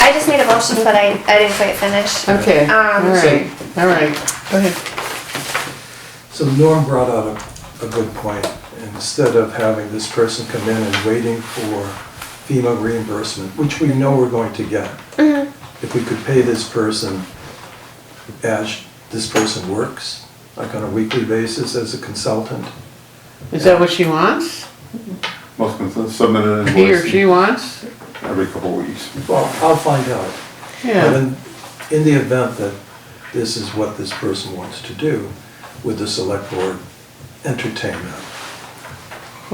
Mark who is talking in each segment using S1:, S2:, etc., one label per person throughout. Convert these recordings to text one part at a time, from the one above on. S1: I just made a motion, but I, I didn't quite finish.
S2: Okay,
S1: Um,
S2: all right, all right, go ahead.
S3: So Norm brought out a, a good point. Instead of having this person come in and waiting for FEMA reimbursement, which we know we're going to get, if we could pay this person as this person works, like on a weekly basis as a consultant,
S2: Is that what she wants?
S4: Most can submit an
S2: He or she
S4: invoice
S2: wants?
S4: every couple of weeks.
S3: well, I'll find out. But
S2: Yeah,
S3: in, in the event that this is what this person wants to do, would the select board entertain that?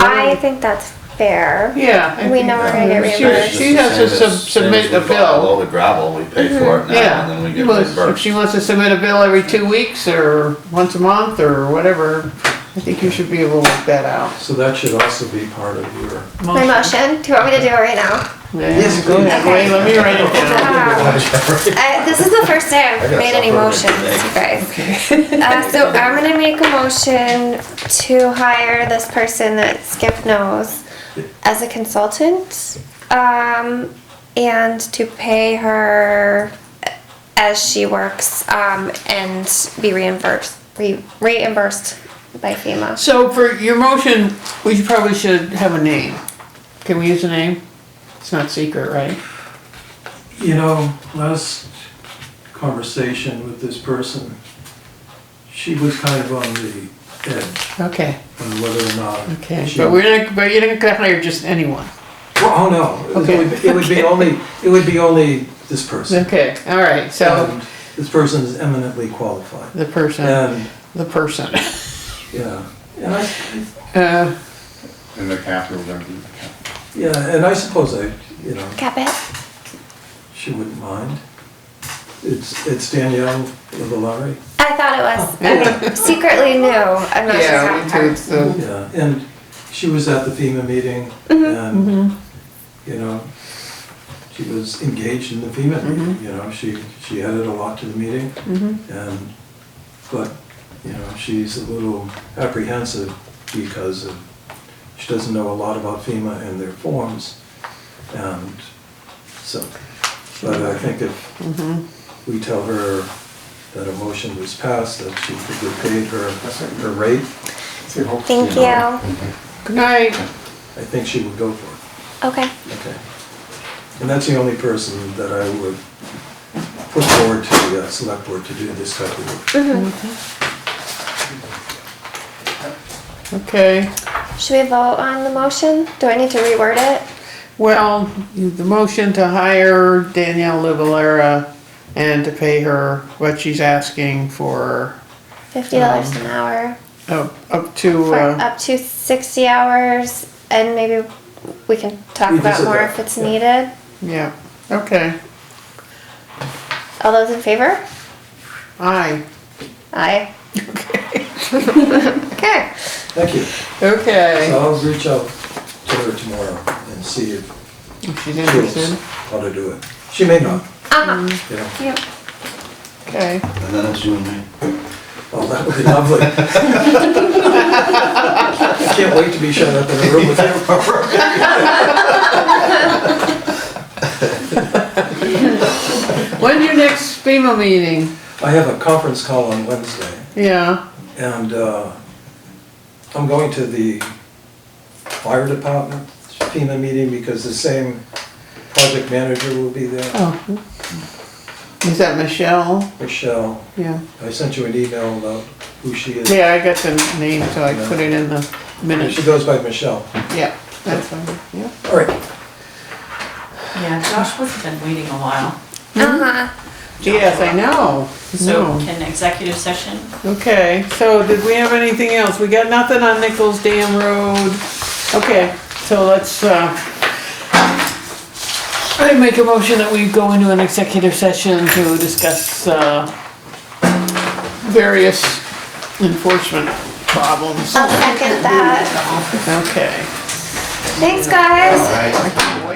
S1: I think that's fair.
S2: yeah. I
S1: We
S2: think-
S1: know we're gonna get
S2: She-
S1: reimbursed.
S2: She has to sub- submit a bill,
S5: All the gravel, we pay for it now, and then we
S2: yeah.
S5: get
S2: Well, If
S5: reimbursed.
S2: she wants to submit a bill every two weeks or once a month or whatever, I think you should be able to work that out.
S3: So that should also be part of your
S1: My motion, do you want me to do it right now?
S2: Yes, go ahead, wait, let me write it down.
S1: I- This is the first day I've made any motions, you guys. Uh, so I'm gonna make a motion to hire this person that Skip knows as a consultant. Um, and to pay her as she works, um, and be reimbursed, re- reimbursed by FEMA.
S2: So for your motion, we should- probably should have a name. Can we use a name? It's not secret, right?
S3: You know, last conversation with this person, she was kind of on the edge
S2: Okay,
S3: on whether or not.
S2: okay,
S3: she-
S2: but we're not, but you're not gonna hire just anyone.
S3: Oh, no, it would, it would be only, it would be only this person.
S2: Okay, all right, so
S3: And This person is eminently qualified.
S2: the person,
S3: And,
S2: the person.
S3: yeah, and I,
S2: Uh,
S4: In the capital, they're in the capital.
S3: yeah, and I suppose I, you know,
S1: Cap it?
S3: she wouldn't mind. It's, it's Danielle Lavallari,
S1: I thought it was. I secretly knew. I'm not
S2: Oh, Yeah, me
S1: sure.
S2: too, uh, so,
S3: yeah, and she was at the FEMA meeting and, you know, she was engaged in the FEMA meeting, you know, she, she added a lot to the meeting. And, but, you know, she's a little apprehensive because of, she doesn't know a lot about FEMA and their forms. And so, but I think if we tell her that a motion was passed, that she could get paid her, her rate,
S1: Thank you.
S2: good night.
S3: I think she would go for it.
S1: Okay.
S3: Okay. And that's the only person that I would put forward to the uh, select board to do this type of work.
S2: Okay,
S1: Should we vote on the motion? Do I need to reword it?
S2: well, you- the motion to hire Danielle Lavalera and to pay her what she's asking for,
S1: Fifty dollars an hour
S2: up, up to,
S1: for
S2: uh,
S1: up to sixty hours, and maybe we can talk
S3: We
S1: about
S3: visit
S1: more
S3: that,
S1: if it's
S3: yeah.
S1: needed.
S2: yeah, okay,
S1: All those in favor?
S2: aye.
S1: Aye. Okay.
S3: Thank you. So
S2: Okay,
S3: I'll reach out to her tomorrow and see if
S2: If she's
S3: she knows
S2: interested,
S3: how to do it. She may not,
S1: Uh-huh.
S3: you know.
S1: Yep.
S2: okay.
S5: And then it's you and me.
S3: Oh, that would be lovely. I can't wait to be shut up in a room with her.
S2: When's your next FEMA meeting?
S3: I have a conference call on Wednesday
S2: Yeah,
S3: and uh, I'm going to the fire department FEMA meeting because the same project manager will be there.
S2: oh. Is that Michelle?
S3: Michelle,
S2: Yeah.
S3: I sent you an email about who she is.
S2: Yeah, I got the name, so I put it in the
S3: She
S2: minutes.
S3: goes by Michelle.
S2: Yeah, that's fine, yeah.
S3: All right,
S6: Yeah, Josh would have been waiting a while.
S1: Uh-huh.
S2: Yes, I know.
S6: So
S2: No.
S6: can executive session,
S2: Okay, so did we have anything else? We got nothing on Nichols Dam Road. Okay, so let's, uh, I make a motion that we go into an executive session to discuss, uh, various enforcement problems.
S1: I'll second that.
S2: Okay.
S1: Thanks, guys.